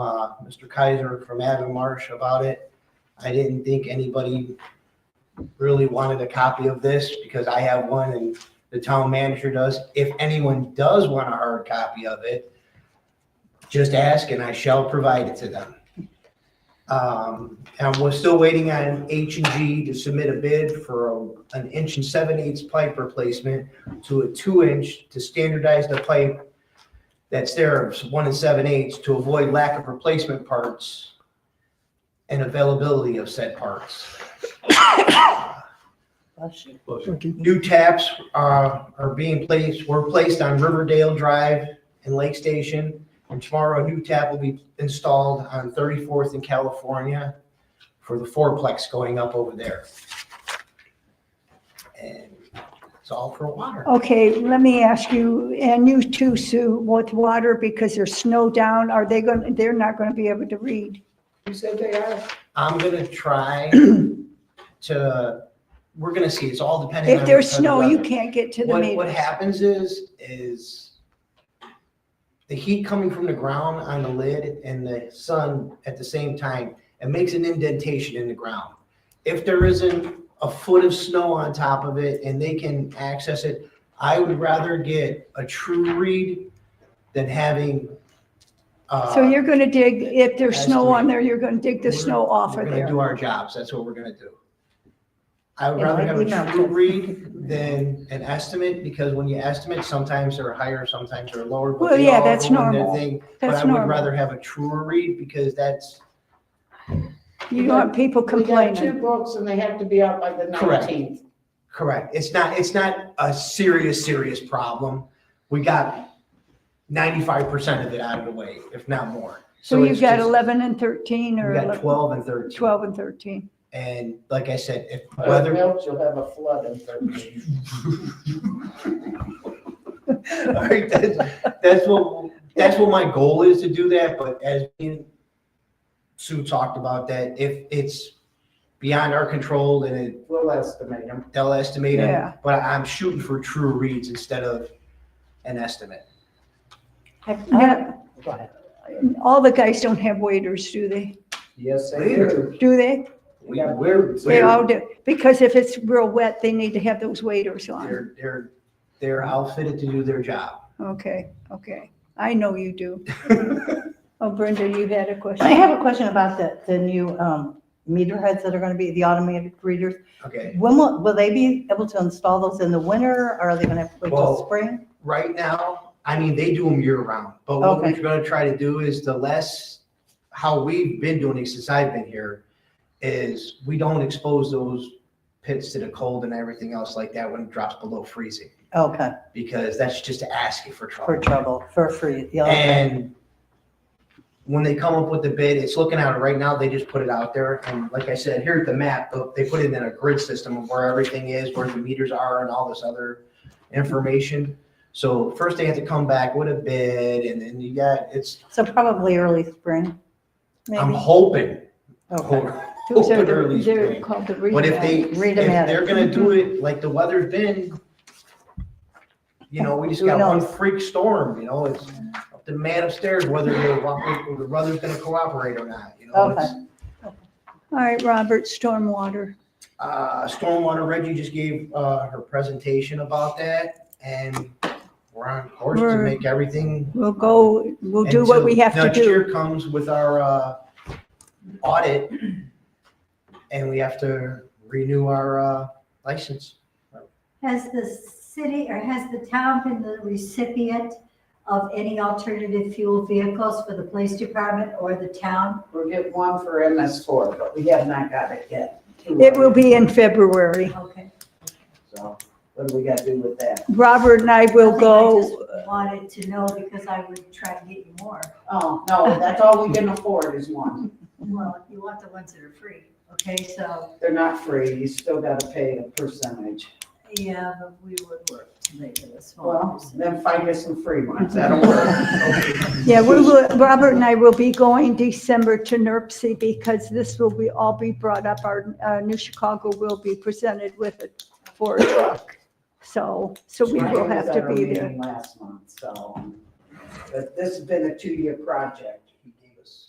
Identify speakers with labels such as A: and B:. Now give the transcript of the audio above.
A: uh, Mr. Kaiser from Adam Marsh about it. I didn't think anybody really wanted a copy of this because I have one and the town manager does. If anyone does want a hard copy of it, just ask and I shall provide it to them. Um, and we're still waiting on H and G to submit a bid for a- an inch and seven eighths pipe replacement to a two inch to standardize the pipe that's there, it's one and seven eighths, to avoid lack of replacement parts and availability of said parts. New taps uh, are being placed, were placed on Riverdale Drive and Lake Station. And tomorrow, a new tap will be installed on 34th in California for the fourplex going up over there. And it's all for water.
B: Okay, let me ask you, and you too, Sue, with water, because there's snow down, are they going, to they're not going to be able to read?
A: You said they are? I'm gonna try to, we're gonna see, it's all depending on.
B: If there's
A: on the
B: snow, you
A: weather.
B: can't get to the
A: What, what
B: meeting.
A: happens is, is the heat coming from the ground on the lid and the sun at the same time, it makes an indentation in the ground. If there isn't a foot of snow on top of it and they can access it, I would rather get a true read than having. uh,
B: So you're going to dig, if there's snow on
A: estimate.
B: there, you're going to dig the
A: We're-
B: snow off of
A: We're gonna
B: there.
A: do our jobs, that's what we're gonna do. I would
B: Yeah,
A: rather
B: like
A: have
B: we
A: a
B: know.
A: true read than an estimate, because when you estimate, sometimes they're higher, sometimes they're lower. but
B: Well,
A: they
B: yeah,
A: all
B: that's
A: ruin their
B: normal.
A: thing. But I
B: That's
A: would
B: normal.
A: rather have a truer read, because that's,
B: You don't want people
C: We got two
B: complaining.
C: books and they have to be out by the
A: Correct.
C: nineteenth.
A: correct, it's not, it's not a serious, serious problem. We got ninety-five percent of it out of the way, if not more.
B: So you've
A: it's
B: got
A: just-
B: 11 and 13 or
A: We got
B: 11
A: twelve and thirteen.
B: 12 and 13.
A: And like I said, if
C: Whether
A: weather
C: else you'll have a flood in thirteen.
A: All right, that's, that's what, that's what my goal is to do that, but as me and Sue talked about that, if it's beyond our control, then it,
C: We'll estimate them.
A: they'll estimate
B: Yeah.
A: it. But I'm shooting for true reads instead of an estimate.
B: Yeah. All the guys don't have waiters, do they?
C: Yes, they
A: Later.
C: do.
B: Do they?
A: We, we're,
B: They all
A: we're,
B: do, because if it's real wet, they need to have those waiters on.
A: they're, they're, they're outfitted to do their job.
B: Okay, okay. I know you do. Oh, Brenda, you had a
D: I
B: question?
D: have a question about the, the new um, meter heads that are going to be, the automated readers.
A: Okay,
D: When will, will they be able to install those in the winter? or Are they going to have to wait
A: Well-
D: till spring?
A: right now, I mean, they do them year round, but what
D: Okay.
A: we're gonna try to do is the less, how we've been doing it since I've been here, is we don't expose those pits to the cold and everything else like that when it drops below freezing,
D: Okay,
A: because that's just asking for
D: for
A: trouble.
D: trouble, for free. yeah, okay.
A: And when they come up with the bid, it's looking at it right now, they just put it out there, and like I said, here at the map, uh, they put it in a grid system of where everything is, where the meters are and all this other information. So first they have to come back with a bid, and then you got, it's,
D: So probably early spring,
A: I'm
D: maybe?
A: hoping,
D: Okay.
A: hoping
B: Those are
A: early
B: the- They're
A: spring.
B: called the
A: But if they,
B: read.
A: if
D: Read 'em at it.
A: they're gonna do it like the weather's been, you know, we just
D: Who
A: got one
D: knows?
A: freak storm, you know, it's up to the man upstairs whether they're, whether the weather's gonna cooperate or not, you know? it's-
B: All right, Robert, stormwater.
A: Uh, stormwater, Reggie just gave, uh, her presentation about that and we're on course to
B: We're-
A: make everything.
B: We'll go, we'll do what we
A: until
B: have to
A: Next
B: do.
A: year comes with our, uh, audit and we have to renew our, uh, license.
E: Has the city or has the town been the recipient of any alternative fuel vehicles for the police department or the town?
C: We'll get one for MS four, but we have not got it yet. Two
B: It
C: of
B: will
C: them.
B: be in February.
E: Okay.
C: So what do we gotta do with that?
B: Robert and I will
E: I
B: go, uh,
E: just Wanted to know because I would try to get you more.
C: Oh, no, that's all we can afford is one.
E: Well, you want the ones that are free, okay? So,
C: They're not free. You still gotta pay a percentage.
E: yeah, but we would work to make it a small
C: Well,
E: percentage.
C: then find us some free ones. That'll work.
B: yeah, we will, Robert and I will be going December to NERC because this will be, all be brought up. Our, uh, New Chicago will be presented with a Ford truck. So, so we will have to be there.
C: Last month, so, but this has been a two-year project.